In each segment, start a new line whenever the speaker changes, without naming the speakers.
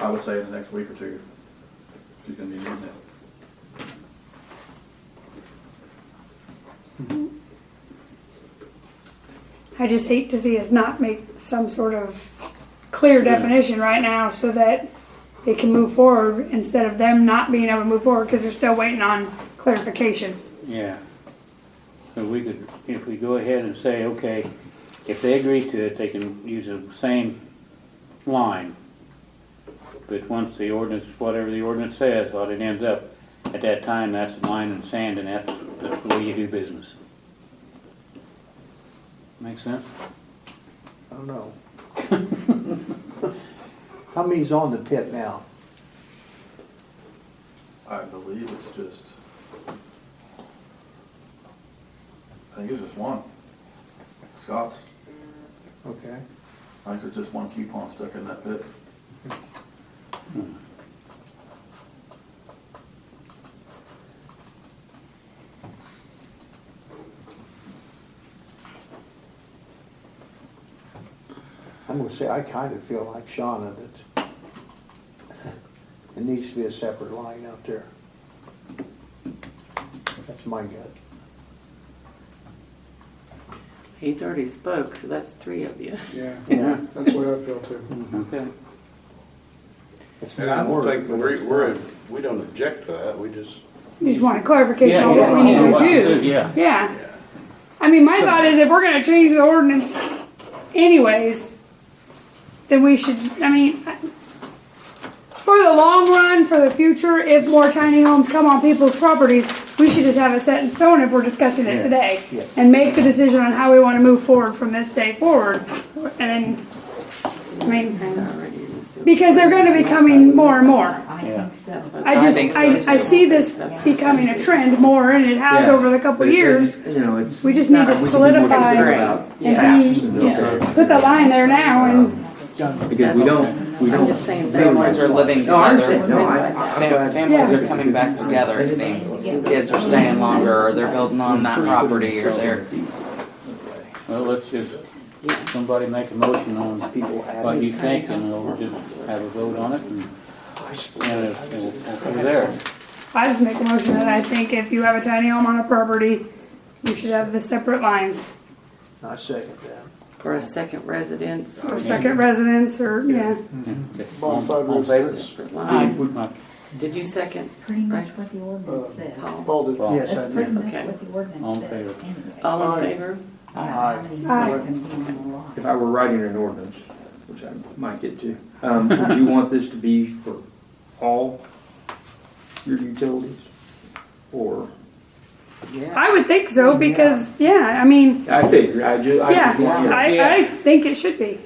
I would say in the next week or two, if you can be using it.
I just hate to see us not make some sort of clear definition right now so that it can move forward instead of them not being able to move forward because they're still waiting on clarification.
Yeah. So we could, if we go ahead and say, okay, if they agree to it, they can use the same line. But once the ordinance, whatever the ordinance says, what it ends up, at that time, that's the line in the sand and that's, that's the way you do business. Make sense?
I don't know. How many's on the pit now?
I believe it's just, I think it's just one. Scott's,
Okay.
I think there's just one coupon stuck in that bit.
I'm gonna say, I kinda feel like Shauna that it needs to be a separate line out there. That's my gut.
He's already spoke, so that's three of you.
Yeah,
Yeah.
that's the way I feel
Mm-hmm.
too.
Okay.
It's
And I
more
don't
work,
think
but it's
we're, we're,
fine.
we don't object to that, we just,
You just want a clarification
Yeah,
on what we
yeah,
need
what
to
to
do.
do, yeah.
Yeah. I mean, my thought is if we're gonna change the ordinance anyways, then we should, I mean, I- for the long run, for the future, if more tiny homes come on people's properties, we should just have it set in stone if we're discussing it
Yeah,
today.
yeah.
And make the decision on how we wanna move forward from this day forward. And then, I mean,
And already in the sewer.
because they're gonna be coming more and more.
I
Yeah.
think so.
I just,
think so,
I, I
too.
see this becoming a trend more, and it has
Yeah.
over the couple
But it-
years.
You know, it's.
We just need to
we could be more
solidify
concerned
and
about
be,
taps and those
just
things.
put the line there now and,
Because we don't, we
I'm
don't.
just saying families are living together.
No, I understand. No, I- I- I'm
Fam-
glad-
Families are coming back together, it seems. Kids are staying longer, or they're building on that property, or they're,
It's easy.
Well, let's just, somebody make a motion on
People add
what
it.
you think and we'll just have a vote on it and, and it- it will- it'll come there.
I just make a motion that I think if you have a tiny home on a property, you should have the separate lines.
I second that.
or a second residence.
Or second residence, or, yeah,
Modified
All in favor?
residence.
Lines.
Not
Did you second?
Pretty much
Right.
what the
Uh,
ordinance says.
Paul did.
Well,
Yes, I
That's pretty
do.
much
Okay.
what the
All in
ordinance says
favor.
anyway.
All
Aye.
in favor?
How many people
Aye.
can be on the lot?
If I were writing an ordinance, which I might get to, um, would you want this to be for all your utilities? Or,
Yeah.
I would think so, because, yeah, I mean,
I figure, I ju, I
yeah,
just want, you know,
I, I think it should be.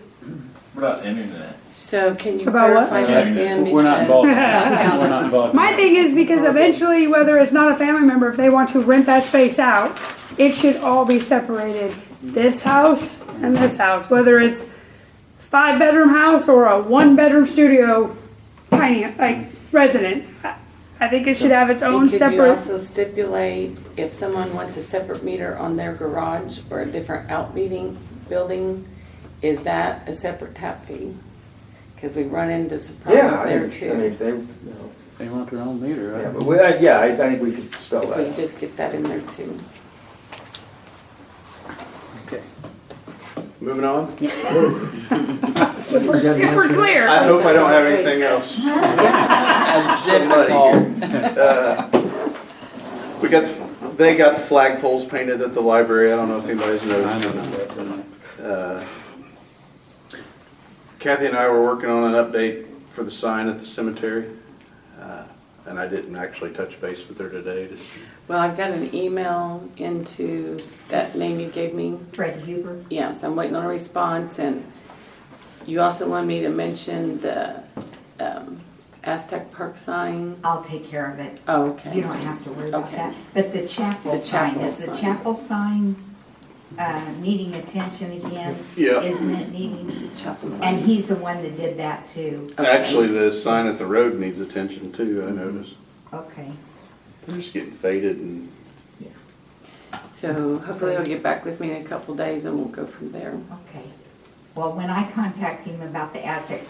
About internet.
So can you
About what?
clarify that again?
We're not
Because-
involved. We're not involved.
My thing is because eventually, whether it's not a family member, if they want to rent that space out, it should all be separated. This house and this house, whether it's five bedroom house or a one bedroom studio, tiny like resident. I- I think it should have its own
And could you
separate.
also stipulate if someone wants a separate meter on their garage or a different outmeeting building, is that a separate tap fee? Because we run into
yeah,
surprises there
I mean, I mean,
too.
if they, you know,
They want their own meter,
yeah,
right?
but we, I- yeah, I think we could spell
If we
that.
just get that in there too.
Okay.
moving on.
If we're, if we're
I
clear,
hope I don't have anything else. Somebody here. Uh, We got, the- they got the flagpoles painted at the library, I don't know if anybody's
I know
noticed.
that, don't I?
Uh, Kathy and I were working on an update for the sign at the cemetery. uh, And I didn't actually touch base with her today, just
Well, I've got an email into that name you gave me.
Fred Huber,
Yes, I'm waiting on a response and you also wanted me to mention the um, Aztec Park sign.
I'll take care of it.
Oh, okay.
You don't have to worry about
Okay.
that. But the chapel
The
sign,
chapel
is the
sign.
chapel sign, uh, needing attention again?
Yeah.
Isn't it needing?
Chapel sign.
And he's the one that did that too.
Okay.
Actually, the sign at the road needs attention too, I noticed.
Okay.
It's just getting faded and
So hopefully he'll get back with me in a couple days and we'll go from there.
Okay. Well, when I contact him about the Aztec